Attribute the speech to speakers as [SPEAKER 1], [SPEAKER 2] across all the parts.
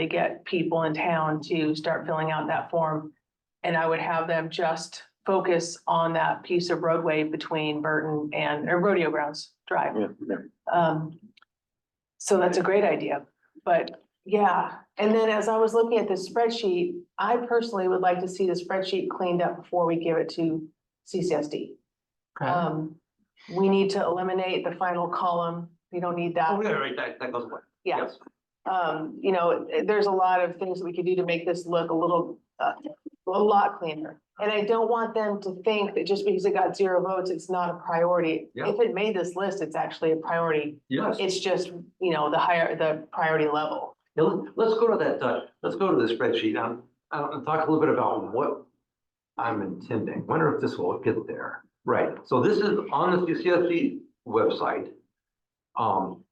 [SPEAKER 1] to get people in town to start filling out that form. And I would have them just focus on that piece of roadway between Burton and, or Rodeo Grounds Drive.
[SPEAKER 2] Yeah, yeah.
[SPEAKER 1] Um, so that's a great idea, but yeah, and then as I was looking at this spreadsheet, I personally would like to see the spreadsheet cleaned up before we give it to CCSD.
[SPEAKER 3] Okay.
[SPEAKER 1] Um, we need to eliminate the final column. We don't need
[SPEAKER 3] Oh,
[SPEAKER 1] that.
[SPEAKER 3] yeah, right, that, that goes away.
[SPEAKER 1] Yeah.
[SPEAKER 3] Yes.
[SPEAKER 1] Um, you know, there's a lot of things that we could do to make this look a little, uh, a lot cleaner. And I don't want them to think that just because it got zero votes, it's not a priority.
[SPEAKER 3] Yeah.
[SPEAKER 1] If it made this list, it's actually a priority.
[SPEAKER 3] Yes.
[SPEAKER 1] It's just, you know, the higher, the priority level.
[SPEAKER 3] Now, let- let's go to that, uh, let's go to the spreadsheet um, uh, and talk a little bit about what I'm intending. Wonder if this will get there. Right, so this is on the CCSD E website. Um,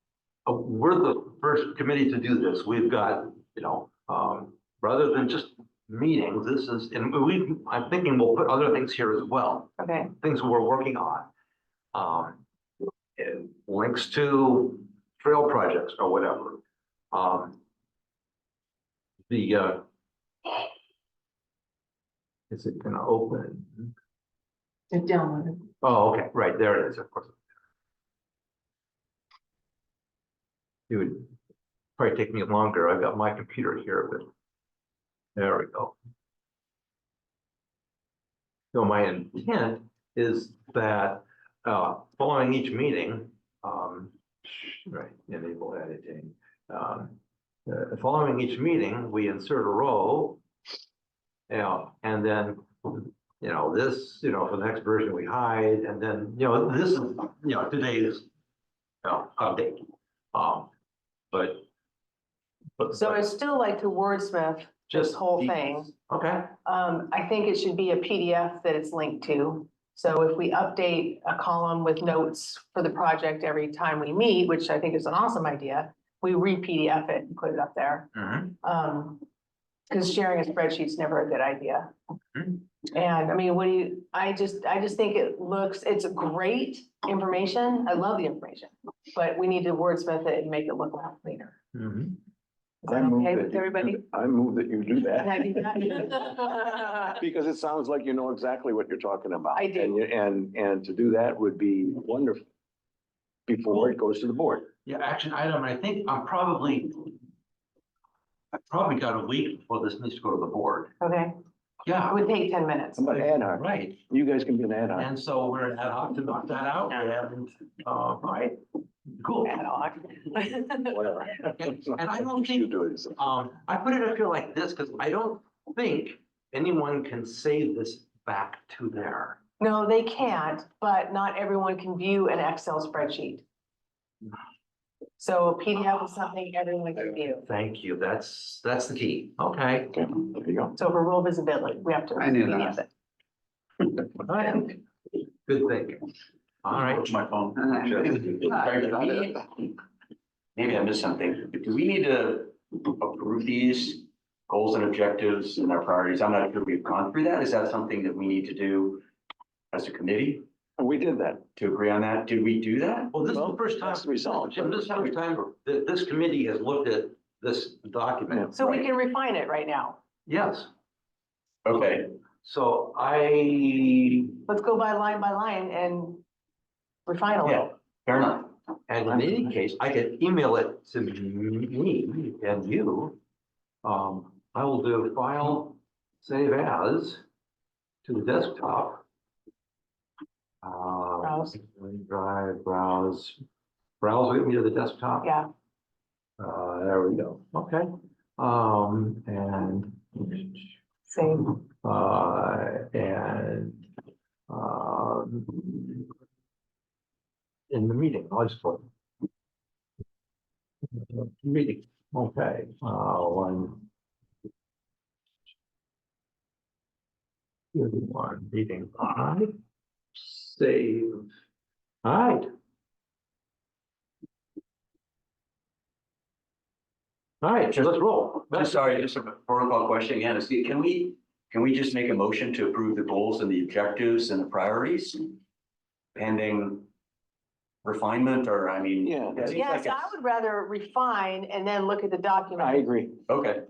[SPEAKER 3] uh, we're the first committee to do this. We've got, you know, um, rather than just meetings, this is, and we, I'm thinking we'll put other things here as well
[SPEAKER 1] Okay.
[SPEAKER 3] things we're working on. Um, and links to trail projects or whatever. Um. The, uh. Is it gonna open? Oh, okay, right, there it is, of course. It would probably take me longer. I've got my computer here, but there we go. So my intent is that, uh, following each meeting, um, right, enable editing. um, Uh, following each meeting, we insert a row. You know, and then, you know, this, you know, for the next version we hide, and then, you know, this is, you know, today's. You know, update, um, but. but-
[SPEAKER 1] So I still like to wordsmith this
[SPEAKER 3] just
[SPEAKER 1] whole
[SPEAKER 3] the-
[SPEAKER 1] thing.
[SPEAKER 3] Okay,
[SPEAKER 1] Um, I think it should be a PDF that it's linked to. So if we update a column with notes for the project every time we meet, which I think is an awesome idea, we re-PDF it and put it up there.
[SPEAKER 3] mhm,
[SPEAKER 1] Um, because sharing a spreadsheet's never a good idea.
[SPEAKER 3] Mhm.
[SPEAKER 1] And I mean, what do you, I just, I just think it looks, it's great information. I love the information. But we need to wordsmith it and make it look a lot cleaner.
[SPEAKER 3] mhm.
[SPEAKER 1] Is
[SPEAKER 2] I
[SPEAKER 1] that
[SPEAKER 2] move
[SPEAKER 1] okay
[SPEAKER 2] that
[SPEAKER 1] with
[SPEAKER 2] you-
[SPEAKER 1] everybody?
[SPEAKER 2] I move that you do
[SPEAKER 1] Can I
[SPEAKER 2] that,
[SPEAKER 1] do that?
[SPEAKER 2] because it sounds like you know exactly what you're talking about.
[SPEAKER 1] I do.
[SPEAKER 2] And you- And, and to do that would be wonderful before it goes to the board.
[SPEAKER 3] Yeah, action item, I think I'm probably. I've probably got a week before this needs to go to the board.
[SPEAKER 1] Okay,
[SPEAKER 3] Yeah,
[SPEAKER 1] it would take ten minutes.
[SPEAKER 2] I'm an ad hoc,
[SPEAKER 3] right.
[SPEAKER 2] you guys can be an ad hoc.
[SPEAKER 3] And so we're ad hoc to knock that out and, uh, right, cool.
[SPEAKER 1] Ad hoc.
[SPEAKER 2] Whatever.
[SPEAKER 3] And I don't
[SPEAKER 2] You
[SPEAKER 3] think,
[SPEAKER 2] do it. so.
[SPEAKER 3] um, I put it up here like this because I don't think anyone can save this back to there.
[SPEAKER 1] No, they can't, but not everyone can view an Excel spreadsheet. So PDF is something everyone can view.
[SPEAKER 3] Thank you. That's, that's the key. Okay.
[SPEAKER 2] Okay, there you go.
[SPEAKER 1] So for rule visibility, we have to.
[SPEAKER 4] I knew that.
[SPEAKER 1] PDF it.
[SPEAKER 3] Good thinking. All right.
[SPEAKER 4] My phone.
[SPEAKER 2] Uh,
[SPEAKER 3] Sure. Uh,
[SPEAKER 4] Maybe I missed something. Do we need to approve these goals and objectives and our priorities? I'm not sure we've gone through that. Is that something that we need to do as a committee
[SPEAKER 2] And we did that.
[SPEAKER 4] to agree on that? Did we do that?
[SPEAKER 3] Well, this is the
[SPEAKER 2] Well,
[SPEAKER 3] first time.
[SPEAKER 2] that's the result.
[SPEAKER 3] Jim, this is the first time that this committee has looked at this document.
[SPEAKER 1] So we can refine it right now.
[SPEAKER 3] Yes,
[SPEAKER 4] Okay,
[SPEAKER 3] so I,
[SPEAKER 1] Let's go by line by line and refine a
[SPEAKER 4] yeah,
[SPEAKER 1] little.
[SPEAKER 4] fair enough.
[SPEAKER 3] and in any case, I could email it to me and you. Um, I will do file, save as to the desktop. Uh,
[SPEAKER 1] Browse.
[SPEAKER 3] Drive, browse, browse with me to the desktop.
[SPEAKER 1] Yeah,
[SPEAKER 3] Uh, there we go. Okay. Um, and
[SPEAKER 1] same.
[SPEAKER 3] Uh, and, um, in the meeting, I'll just put. Meeting, okay, uh, one. Here's One meeting, all right, save, all right. All right, so let's roll.
[SPEAKER 4] I'm sorry, just a protocol question again. Is- Can we, can we just make a motion to approve the goals and the objectives and the priorities? Pending refinement or, I mean?
[SPEAKER 2] Yeah.
[SPEAKER 4] it seems
[SPEAKER 1] Yes,
[SPEAKER 4] like
[SPEAKER 1] I
[SPEAKER 4] it's-
[SPEAKER 1] would rather refine and then look at the document.
[SPEAKER 2] I agree.
[SPEAKER 4] Okay.